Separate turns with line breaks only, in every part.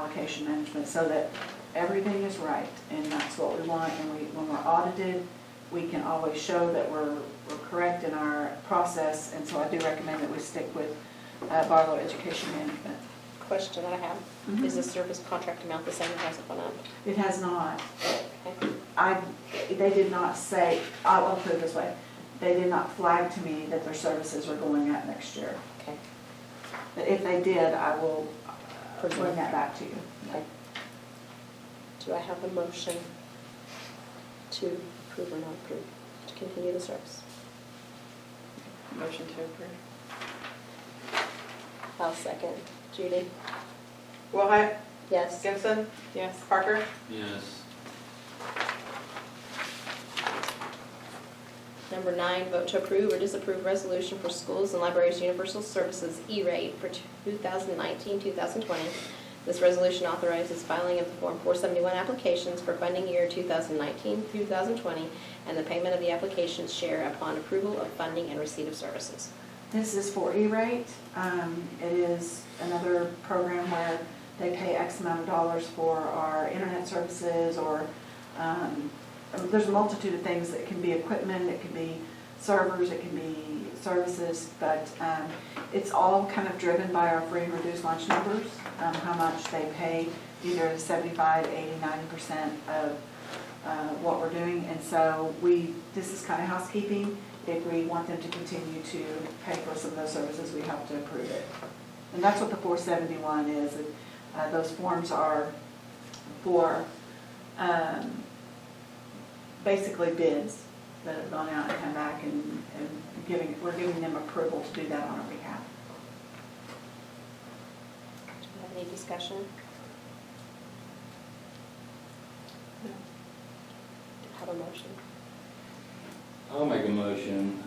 allocation management, so that everything is right, and that's what we want, and we, when we're audited, we can always show that we're, we're correct in our process, and so I do recommend that we stick with uh, Barlow Education Management.
Question that I have, is the service contract amount the same as it went up?
It has not,
Okay.
I, they did not say, I'll I'll put it this way, they did not flag to me that their services were going up next year.
Okay.
But if they did, I will uh, bring that back to you.
Okay. Do I have a motion to approve or not approve, to continue the service?
Motion to approve.
I'll second. Judy?
Willhite,
Yes.
Gibson? Yes. Parker?
Yes.
Number nine, vote to approve or disapprove resolution for schools and libraries universal services E-rate for 2019-2020. This resolution authorizes filing of the Form 471 applications for funding year 2019-2020 and the payment of the application's share upon approval of funding and receipt of services.
This is for E-rate. Um, It is another program where they pay X amount of dollars for our internet services or, um, there's a multitude of things. It can be equipment, it can be servers, it can be services, but um, it's all kind of driven by our free and reduced lunch numbers, um, how much they pay, either 75, 80, 90% of uh, what we're doing, and so we, this is kind of housekeeping. If we want them to continue to pay for some of those services, we have to approve it. And that's what the 471 is, and uh, those forms are for um, basically bids that have gone out and come back, and and giving, we're giving them approval to do that on our behalf.
Do we have any discussion?
No.
Have a motion?
I'll make a motion,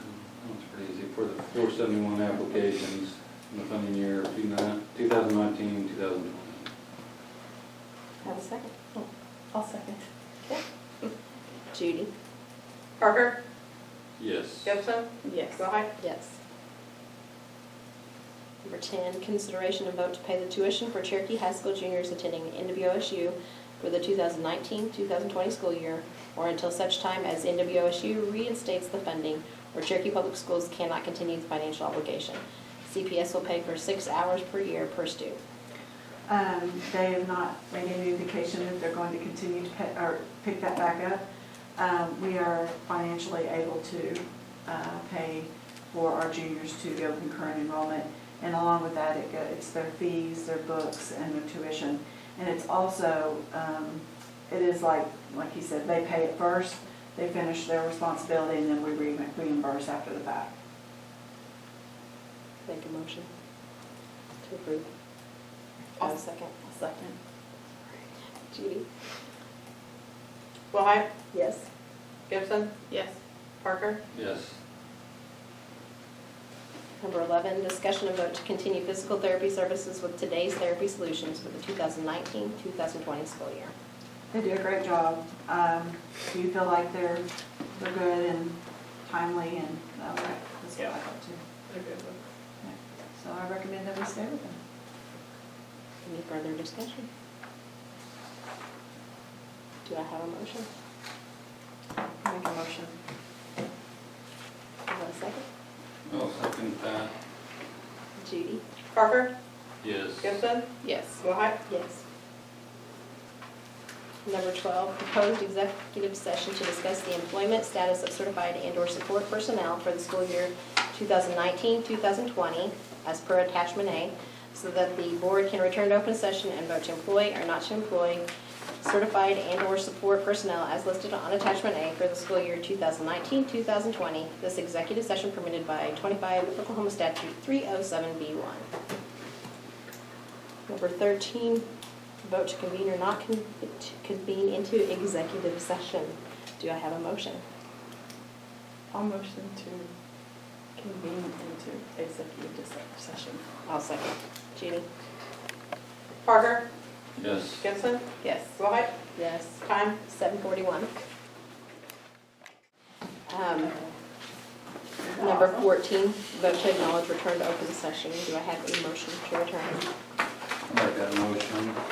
that's pretty easy, for the four seventy-one applications in the funding year of two nine, two thousand nineteen, two thousand twenty.
Have a second.
Oh, I'll second.
Judy?
Parker?
Yes.
Gibson?
Yes.
Willhite?
Yes. Number 10, consideration and vote to pay the tuition for Cherokee High School juniors attending NWOSU for the 2019-2020 school year or until such time as NWOSU reinstates the funding or Cherokee Public Schools cannot continue the financial obligation. CPS will pay for six hours per year per student.
Um, They have not made any indication that they're going to continue to pay, or pick that back up. Um, We are financially able to uh, pay for our juniors to go concurrent enrollment. And along with that, it go- it's their fees, their books, and their tuition. And it's also, um, it is like, like he said, they pay it first, they finish their responsibility, and then we re- reimburse after the fact.
Make a motion to approve.
I'll-
Have a second. Second. Judy?
Willhite,
Yes.
Gibson? Yes. Parker?
Yes.
Number 11, discussion and vote to continue physical therapy services with Today's Therapy Solutions for the 2019-2020 school year.
They do a great job. Um, Do you feel like they're, they're good and timely and, uh, that's what I thought too. So I recommend that we stay with them.
Any further discussion? Do I have a motion?
Make a motion.
Do I have a second?
I'll second that.
Judy?
Parker?
Yes.
Gibson?
Yes.
Willhite?
Yes. Number 12, proposed executive session to discuss the employment status of certified and/or support personnel for the school year 2019-2020 as per attachment A, so that the board can return to open session and vote to employ or not to employ certified and/or support personnel as listed on attachment A for the school year 2019-2020. This executive session permitted by 25 Oklahoma Statute 307B1. Number 13, vote to convene or not con- to convene into executive session. Do I have a motion?
I'll motion to convene into executive session.
I'll second. Judy?
Parker?
Yes.
Gibson?
Yes.
Willhite?
Yes.
Time?
7:41. Um, Number 14, vote to acknowledge return to open session. Do I have a motion to return?
I'll make that motion.